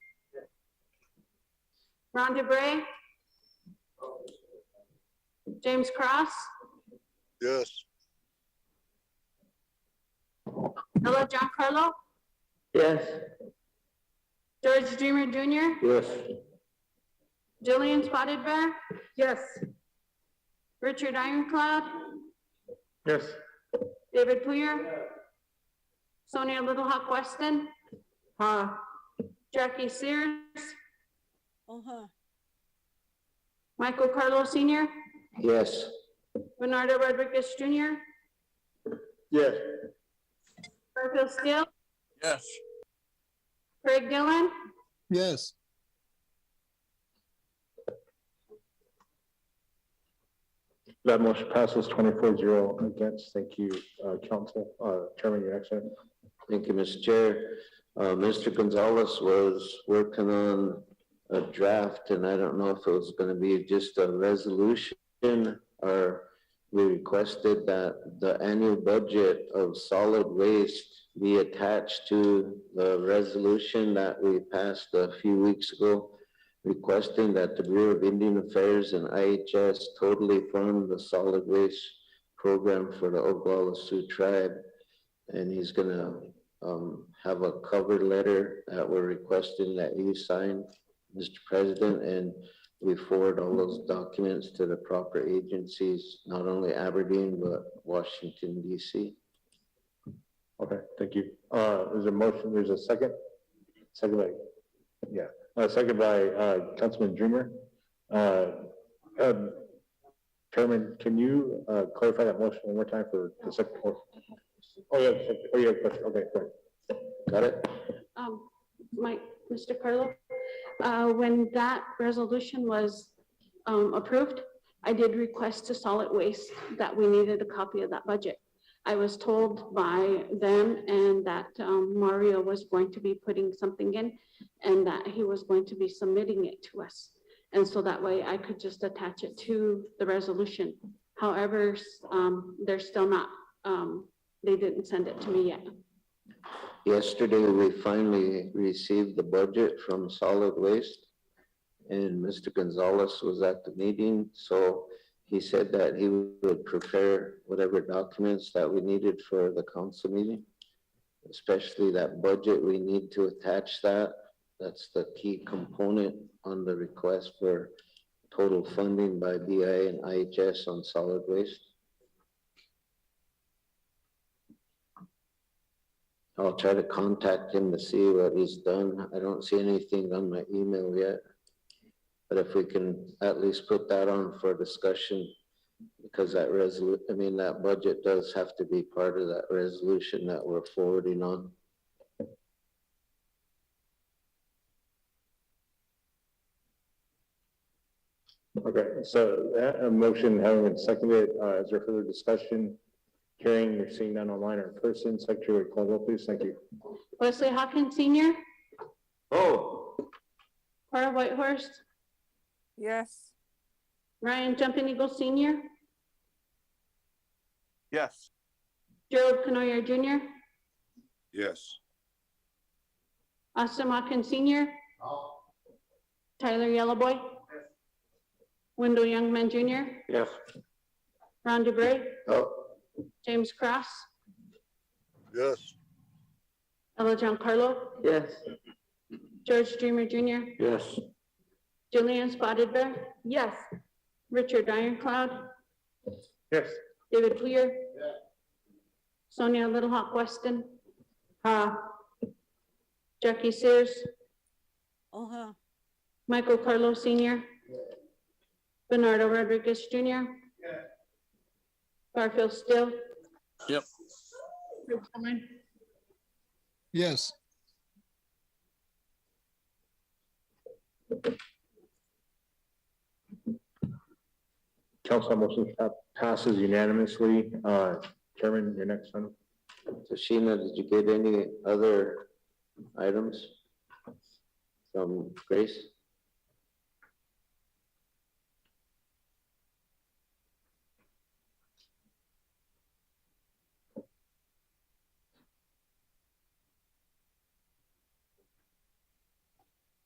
Ron DeBrey, James Cross, Yes. Ella Giancarlo, Yes. George Dreamer Jr., Yes. Jillian Spotted Bear, yes, Richard Ironclad, Yes. David Poyer, Sonia Little Hawk Weston, huh, Jackie Sears, uh-huh, Michael Carlo Senior, Yes. Bernardo Rodriguez Jr., Yes. Garfield Steele, Yes. Craig Dillon, Yes. That motion passes 24-0 against. Thank you, uh, Council, uh, Chairman, your next item. Thank you, Mr. Chair. Uh, Mr. Gonzalez was working on a draft, and I don't know if it was gonna be just a resolution or we requested that the annual budget of solid waste be attached to the resolution that we passed a few weeks ago requesting that the Bureau of Indian Affairs and IHS totally fund the solid waste program for the Oglala Sioux Tribe. And he's gonna um, have a cover letter that we're requesting that you sign, Mr. President, and we forward all those documents to the proper agencies, not only Aberdeen, but Washington DC. Okay, thank you. Uh, there's a motion, there's a second? Second by, yeah, uh, second by, uh, Councilman Dreamer. Uh, um, Chairman, can you, uh, clarify that motion one more time for the second? Oh, oh, yeah, oh, yeah, okay, good. Got it? um, Mike, Mr. Carlo, uh, when that resolution was, um, approved, I did request to solid waste that we needed a copy of that budget. I was told by them and that, um, Mario was going to be putting something in and that he was going to be submitting it to us. And so that way I could just attach it to the resolution. However, s- um, they're still not, um, they didn't send it to me yet. Yesterday, we finally received the budget from solid waste. And Mr. Gonzalez was at the meeting, so he said that he would prepare whatever documents that we needed for the council meeting. Especially that budget, we need to attach that. That's the key component on the request for total funding by BI and IHS on solid waste. I'll try to contact him to see what he's done. I don't see anything on my email yet. But if we can at least put that on for discussion, because that resolu, I mean, that budget does have to be part of that resolution that we're forwarding on. Okay, so that, a motion having been seconded, uh, is there further discussion? Hearing, you're seeing none online or in person. Secretary, call roll, please. Thank you. Wesley Hawkins Senior, Oh. Cora Whitehorse, yes. Ryan Jumping Eagle Senior, Yes. Gerald Canoyer Junior, Yes. Austin Watkins Senior, Tyler Yellowboy, Wendell Youngman Junior, Yes. Ron DeBrey, Oh, James Cross, Yes. Ella Giancarlo, yes. George Dreamer Junior, Yes. Julian Spotted Bear, yes, Richard Ironclad, Yes. David Poyer, Sonia Little Hawk Weston, uh, huh, Jackie Sears, uh-huh, Michael Carlo Senior. Bernardo Rodriguez Junior. Garfield Still. Yep. Rick Tillman, Yes. Council motion pa- passes unanimously. Uh, Chairman, your next item. So Sheena, did you get any other items from Grace?